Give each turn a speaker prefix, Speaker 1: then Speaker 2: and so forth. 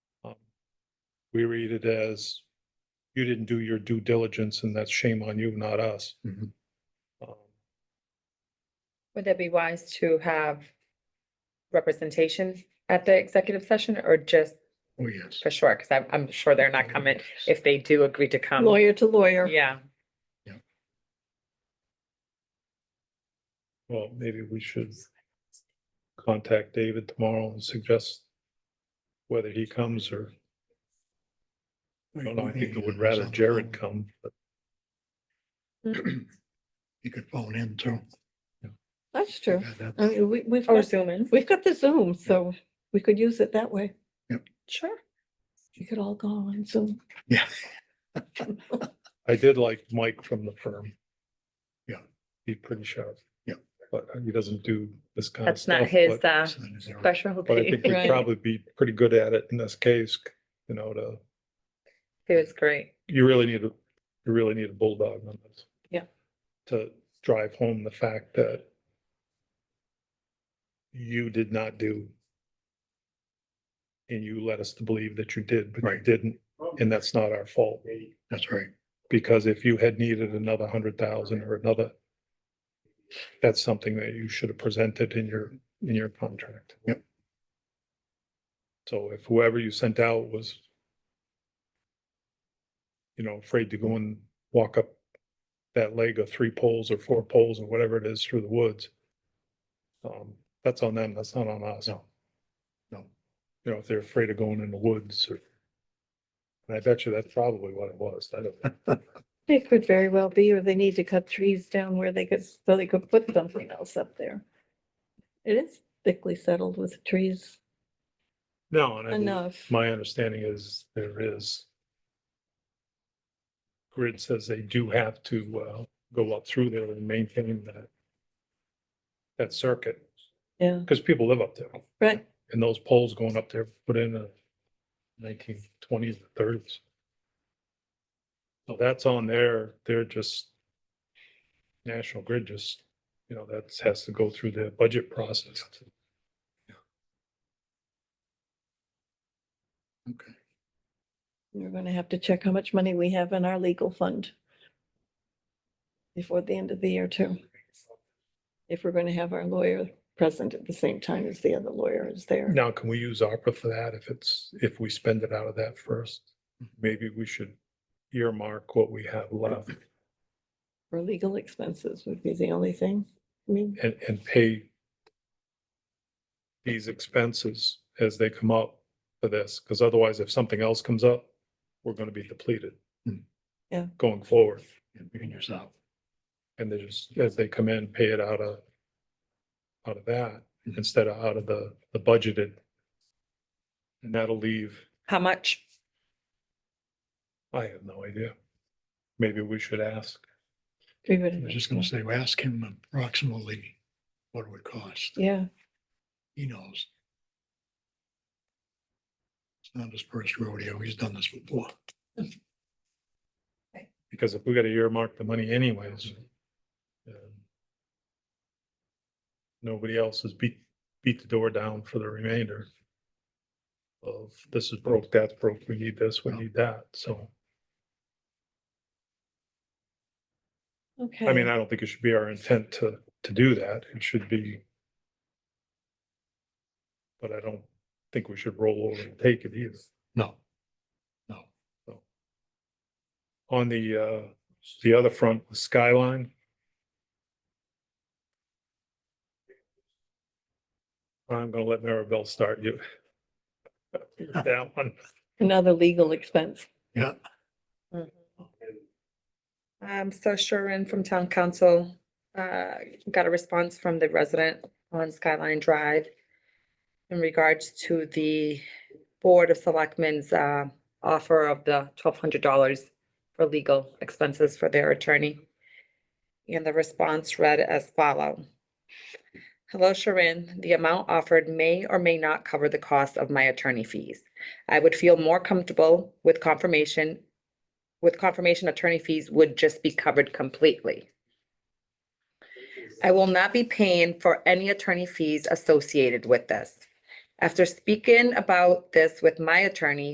Speaker 1: Um, we read it as you didn't do your due diligence and that's shame on you, not us.
Speaker 2: Mhm.
Speaker 1: Um,
Speaker 3: Would that be wise to have representation at the executive session or just
Speaker 2: Oh, yes.
Speaker 3: for sure? Because I'm, I'm sure they're not coming if they do agree to
Speaker 1: Um,
Speaker 3: come.
Speaker 4: lawyer to lawyer.
Speaker 3: Yeah,
Speaker 1: Well, maybe we should contact David tomorrow and suggest whether he comes or, I don't know, I think I would rather Jared come, but
Speaker 2: You could phone in too.
Speaker 4: That's true.
Speaker 2: Yeah, that-
Speaker 4: I mean, we, we've,
Speaker 1: Oh,
Speaker 3: or
Speaker 4: got-
Speaker 3: Zoom in.
Speaker 4: we've got the Zoom, so we could use it that way.
Speaker 3: Sure.
Speaker 4: You could all go on Zoom.
Speaker 2: Yeah,
Speaker 1: I did like Mike from the firm.
Speaker 2: Yeah.
Speaker 1: He's pretty sharp.
Speaker 2: Yeah.
Speaker 1: But he doesn't do this kind of
Speaker 3: That's
Speaker 1: stuff.
Speaker 3: not his,
Speaker 1: but-
Speaker 3: uh,
Speaker 2: so that is our-
Speaker 1: But I think
Speaker 3: specialty.
Speaker 1: we'd
Speaker 4: Right.
Speaker 1: probably be pretty good at it in this case, you know, to,
Speaker 3: It was great.
Speaker 1: you really need, a you really need a bulldog on this.
Speaker 3: Yeah.
Speaker 1: To drive home the fact that you did not do and you led us to believe that you did, but you
Speaker 2: Right.
Speaker 1: didn't, and that's not our fault.
Speaker 2: That's right.
Speaker 1: Because if you had needed another hundred thousand or another, that's something that you should have presented in your, in your contract.
Speaker 2: Yep.
Speaker 1: So if whoever you sent out was, you know, afraid to go and walk up that leg of three poles or four poles or whatever it is through the woods, um, that's on them, that's not on us.
Speaker 2: No. No.
Speaker 1: You know, if they're afraid of going in the woods or, and I bet you that's probably what it was. I don't,
Speaker 4: It could very well be, or they need to cut trees down where they could, so they could put something else up there. It is thickly settled with trees
Speaker 1: no, and I believe-
Speaker 4: enough.
Speaker 1: My understanding is there is. Grid says they do have to uh go up through there and maintain that. That circuit,
Speaker 4: Yeah,
Speaker 1: because people live up there
Speaker 4: right.
Speaker 1: and those poles going up there put in the nineteen twenties, thirties. So that's on there, they're just. National Grid just, you know, that has to go through the budget process.
Speaker 2: Okay.
Speaker 4: We're gonna have to check how much money we have in our legal fund before the end of the year too. If we're gonna have our lawyer present at the same time as the other lawyer is there.
Speaker 1: Now, can we use ARPA for that if it's, if we spend it out of that first? Maybe we should earmark what we have left
Speaker 4: Or legal expenses would be the only thing. I mean,
Speaker 1: and, and pay these expenses as they come up for this, because otherwise if something else comes up, we're gonna be depleted.
Speaker 2: Hmm.
Speaker 4: Yeah.
Speaker 1: Going forward,
Speaker 2: And bring yourself.
Speaker 1: and they just, as they come in, pay it out of, out of that,
Speaker 2: Mhm.
Speaker 1: instead of out of the, the budgeted. And that'll leave
Speaker 3: How much?
Speaker 1: I have no idea. Maybe we should ask.
Speaker 4: we
Speaker 2: I was
Speaker 4: would,
Speaker 2: just gonna say, well, ask him approximately what it would cost.
Speaker 4: yeah,
Speaker 2: He knows. It's not his first rodeo. He's done this before.
Speaker 1: Because if we gotta earmark the money anyways. um, Nobody else has beat, beat the door down for the remainder. Of this is broke, that's broke, we need this, we need that, so,
Speaker 4: okay.
Speaker 1: I mean, I don't think it should be our intent to, to do that, it should be. But I don't think we should roll over and take it either.
Speaker 2: No. No.
Speaker 1: on the, uh, the other front, the skyline. I'm gonna let Maribel start you. That one,
Speaker 4: Another legal expense.
Speaker 2: Yeah.
Speaker 3: Um, so Sharon from Town Council, uh, got a response from the resident on Skyline Drive in regards to the Board of Selectmen's, uh, offer of the twelve hundred dollars for legal expenses for their attorney. And the response read as follow. Hello, Sharon. The amount offered may or may not cover the cost of my attorney fees. I would feel more comfortable with confirmation with confirmation attorney fees would just be covered completely. I will not be paying for any attorney fees associated with this. After speaking about this with my attorney,